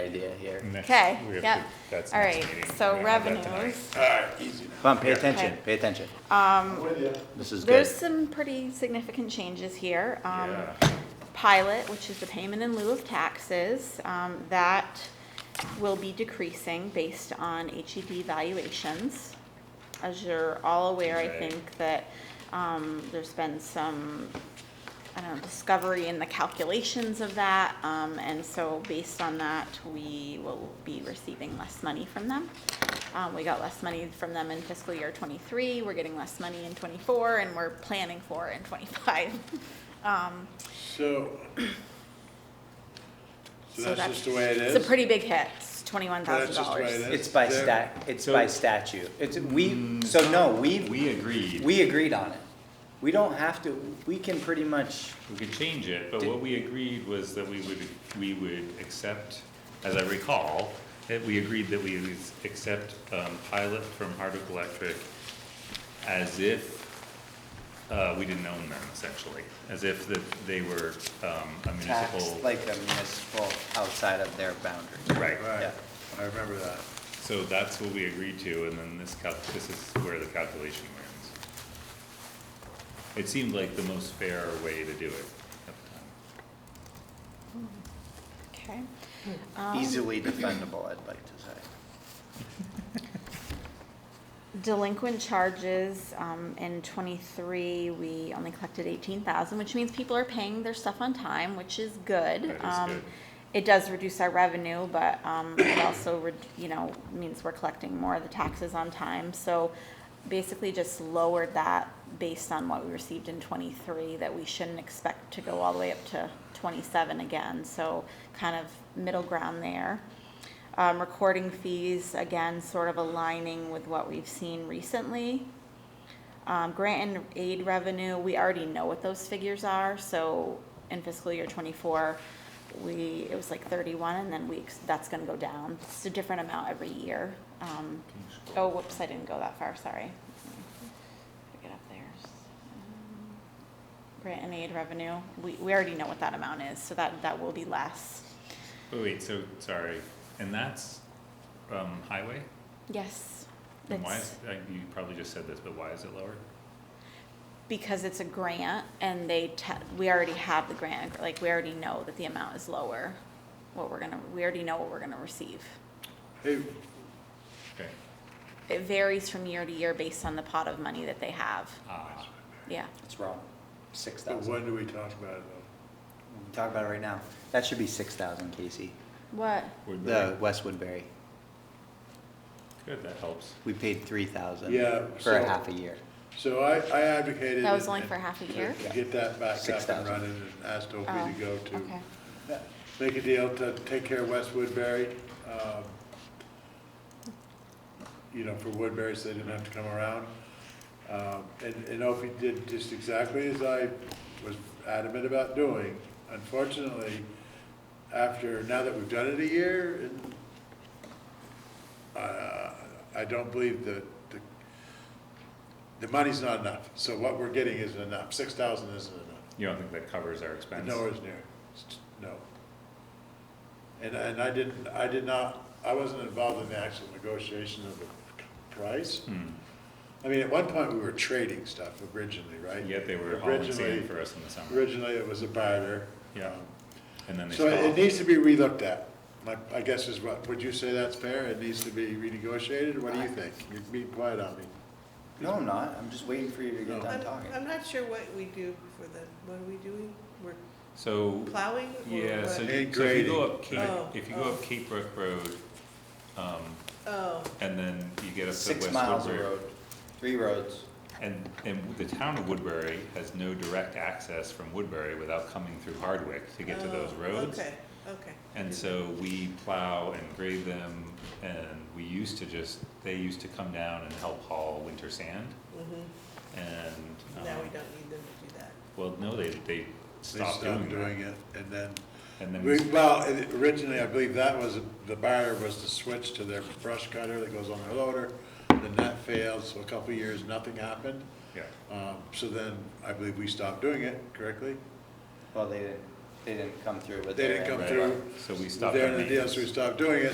idea here. Next, Okay, we have yep. to- that's All next right, meeting. so We don't have that tonight. revenues. All right, easy. Come on, pay Yeah. attention, Okay. pay attention. Um, I'm with you. This is good. There's some pretty significant changes here. Um, Yeah. Pilot, which is the payment in lieu of taxes, um, that will be decreasing based on HED valuations. As you're all aware, I Right. think that um, there's been some, I don't know, discovery in the calculations of that. um, And so based on that, we will be receiving less money from them. Um, We got less money from them in fiscal year '23, we're getting less money in '24, and we're planning for in '25. So. So that's just the way it is? It's a pretty big hit, it's $21,000. That's just the way it is? It's by There- stat, it's by statute. It's, we, so no, we, We agreed, we agreed on it. We don't have to, we can pretty much, we could change it, but what we agreed was that we would, we would accept, as I recall, that we agreed that we would accept, um, pilot from Hardwick Electric as if, uh, we didn't own them essentially, as if that they were, um, a municipal. tax like a municipal outside of their boundaries. Right, Right, Yeah. I remember that. so that's what we agreed to, and then this cal, this is where the calculation wins. It seemed like the most fair way to do it at the time. Okay. Easily defendable, I'd like to say. Delinquent charges, um, in twenty-three, we only collected eighteen thousand, which means people are paying their stuff on time, which is good. That is Um, good. It does reduce our revenue, but, um, it also, re- you know, means we're collecting more of the taxes on time, so basically just lowered that based on what we received in twenty-three, that we shouldn't expect to go all the way up to twenty-seven again, so kind of middle ground there. Um, recording fees, again, sort of aligning with what we've seen recently. Um, grant and aid revenue, we already know what those figures are, so in fiscal year twenty-four, we, it was like thirty-one, and then we, ex- that's gonna go down. It's a different amount every year. Um, oh, whoops, I didn't go that far, sorry. Let me Get up there. Um, Grant and aid revenue, we, we already know what that amount is, so that, that will be less. Wait, wait, so, sorry, and that's, um, highway? Yes. And why it's- is, uh, you probably just said this, but why is it lower? because it's a grant and they, te- we already have the grant, like, we already know that the amount is lower, what we're gonna, we already know what we're gonna receive. Hey, Okay, It varies from year to year based on the pot of money that they have, ah, yeah. It's wrong. Six but thousand. when do we talk about it though? Talk about it right now. That should be six thousand, Casey. What? The Woodbury, West Woodbury, good, that helps. we paid three thousand Yeah, for a so- half a year. So I, I advocated. That was and- only for half a to- year? Oh, To get that back up and 6,000. running and asked Opie to go to. Okay, make a deal to take care of West Woodbury. um, You know, for Woodbury, so they didn't have to come around. Um, And, and Opie did just exactly as I was adamant about doing. Unfortunately, after, now that we've done it a year, and, uh, I don't believe that the, the money's not enough. So what we're getting isn't enough. Six thousand isn't enough. You don't think that covers our expense? Nowhere's near, It's- no. And, and I didn't, I did not, I wasn't involved in the actual negotiation of the price. Hmm, I mean, at one point, we were trading stuff originally, right? yet they were hauling Originally- sand for us in the summer, Originally, it was a barter. Yeah. Um, and then they So it- it stopped. needs to be relooked at, my, I guess is what, would you say that's fair? It needs to be renegotiated, what do you think? You're being quiet on me. No, I'm not. I'm just waiting for you to get No. done I'm, talking. I'm not sure what we do for the, what are we doing? We're So, plowing or what? yeah, so so And if you go up grading. Cape, Oh, if you go oh. up Cape Brook Road, um, Oh, and then you get up to Six West miles of Woodbury. road, three roads. And, and the town of Woodbury has no direct access from Woodbury without coming through Hardwick to get to oh, those roads. Okay, okay. And so we plow and grade them, and we used to just, they used to come down and help haul winter sand, Mm-hmm. and, Now we um, don't need them to do that. well, no, they, they They stopped doing that. Doing it, and then And then, We- we- Well, it- originally, I believe that was, the buyer was to switch to their brush cutter that goes on their loader. Then that failed, so a couple of years, nothing happened. yeah, Um, So then, I believe we stopped doing it, correctly? Well, they didn't. they didn't come through with They their. didn't come end. through. So we with stopped their our end of the deal, So we maintenance. stopped doing it,